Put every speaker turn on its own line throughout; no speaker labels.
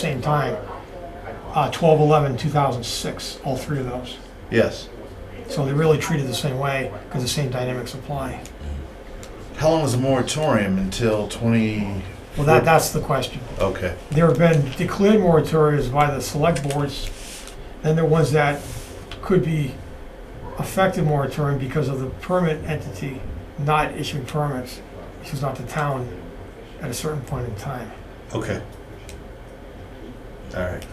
same time. Uh, 12, 11, 2006, all three of those.
Yes.
So they're really treated the same way because the same dynamics apply.
How long is the moratorium until 20?
Well, that, that's the question.
Okay.
There have been declared moratoriums by the select boards, then there are ones that could be affected moratorium because of the permit entity not issuing permits, which is not the town at a certain point in time.
Okay. All right.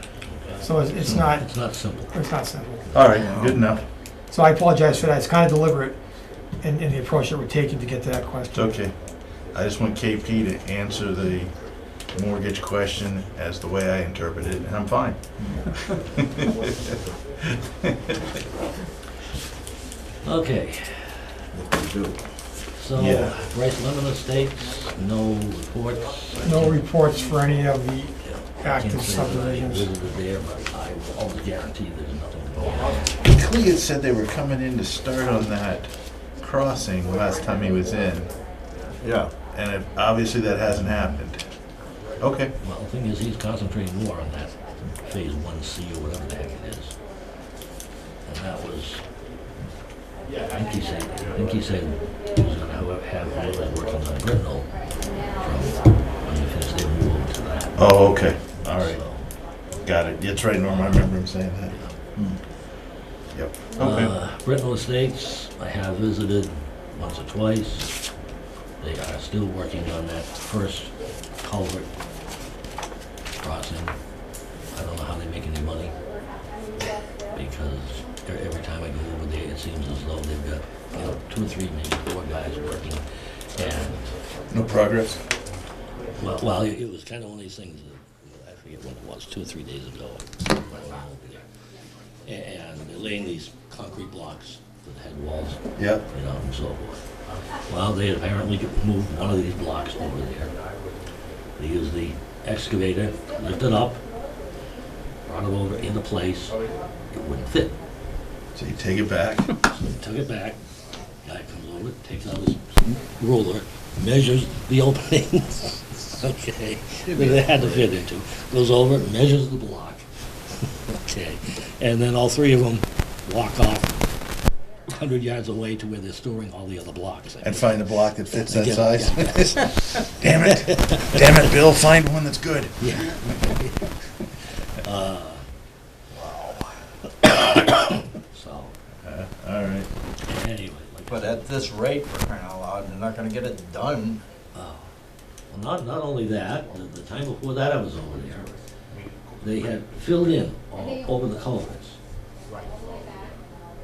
So it's, it's not,
It's not simple.
it's not simple.
All right. Good enough.
So I apologize for that. It's kind of deliberate in, in the approach that we're taking to get to that
It's
question.
okay. I just want KP to answer the mortgage question as the way I interpret it, and I'm fine.
Okay, so
Yeah.
Bryce Lemon Estates, no reports. I
No
can't-
reports for any of the
I can't
active
say that I
subdivisions.
visited there, but I will always guarantee there's nothing going on.
Clea had said they were coming in to start on that crossing last time he was in,
Yeah.
and it- obviously that hasn't happened. Okay.
Well, the thing is, he's concentrating more on that phase one C or whatever the heck it is. And that was, I think he said, I think he said he was gonna have, have whoever's working on Britnell from, when he finished, they moved to that.
Oh, okay. All right.
So,
Got it. That's right, Norm. I remember him saying that.
yeah.
Yep.
Uh, Britnell Estates, I have visited once or twice. They are still working on that first culvert crossing. I don't know how they make any money, because e- every time I go over there, it seems as though they've got, you know, two or three, maybe four guys working. And,
No progress?
well, well, it it was kind of one of these things, that- I forget when it was, two or three days ago, when I went over there. A- And they're laying these concrete blocks that had walls
Yep.
you know, and so forth. Well, they apparently moved one of these blocks over there. They used the excavator, lifted it up, brought it over into place. It wouldn't fit.
So you take it back.
So they took it back. Guy comes over, takes out his ruler, measures the opening. okay, that it had to fit into. Goes over, measures the block. okay, and then all three of them walk off 100 yards away to where they're storing all the other blocks. I
And find the block that fits that
Yeah,
size.
yeah,
Damn it. Damn it, Bill. Find one that's good.
Yeah. Uh, So,
All right.
anyway, like,
But at this rate, we're crying out loud, they're not gonna get it done.
well, not, not only that, the, the time before that I was over there, they had filled in all over the culverts.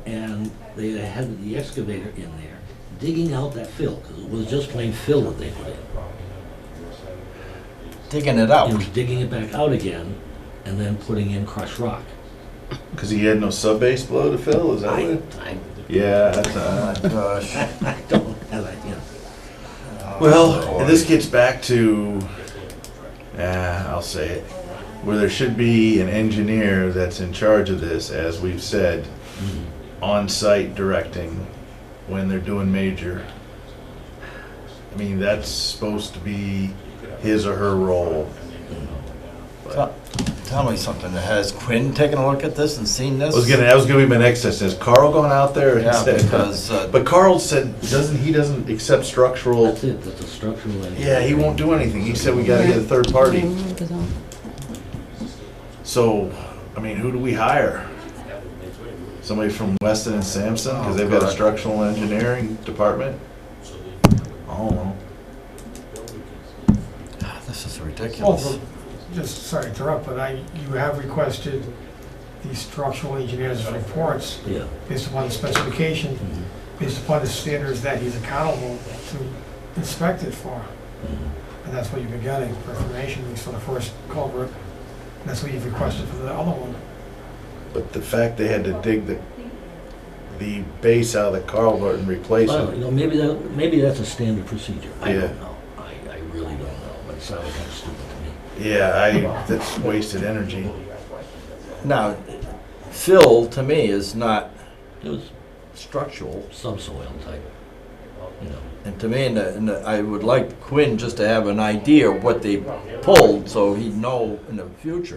And they had the excavator in there digging out that fill, because it was just plain fill that they put in.
Digging it out.
It was digging it back out again and then putting in crushed rock.
Because he had no sub base below to fill, is that
I,
it?
I,
Yeah, that's,
Oh
uh,
my gosh.
I don't have that, you know.
well, and this gets back to, ah, I'll say it, where there should be an engineer that's in charge of this, as we've said, on-site directing when they're doing major. I mean, that's supposed to be his or her role.
Tell- Tell me something, has Quinn taken a look at this and seen
I
this?
was gonna, that was gonna be my next question, has Carl gone out there? and
Yeah,
said-
because, uh,
But Carl said, doesn't, he doesn't accept structural
That's it, that's a structural engineer.
Yeah, he won't do anything. He said we gotta get a third party. So, I mean, who do we hire? Somebody from Weston and Sampson, because they've got a structural engineering department? I don't know.
This is
Well,
ridiculous.
Oh, for- just, sorry to interrupt, but I, you have requested the structural engineer's reports
Yeah.
based upon the specification,
mhm,
based upon the standards that he's accountable to inspect it for.
mhm.
And that's what you've been getting for information, at least for the first culvert. And that's what you've requested for the other one.
But the fact they had to dig the, the base out of the culvert and replace
Well, you
it.
know, maybe that, maybe that's a standard procedure. I
Yeah.
don't know. I, I really don't know, but it sounded kind of stupid to me.
Yeah, I, that's wasted energy.
Now, fill to me is not
It was
structural.
subsoil type, you know.
And to me, and, uh, and uh, I would like Quinn just to have an idea of what they pulled, so he'd know in the future.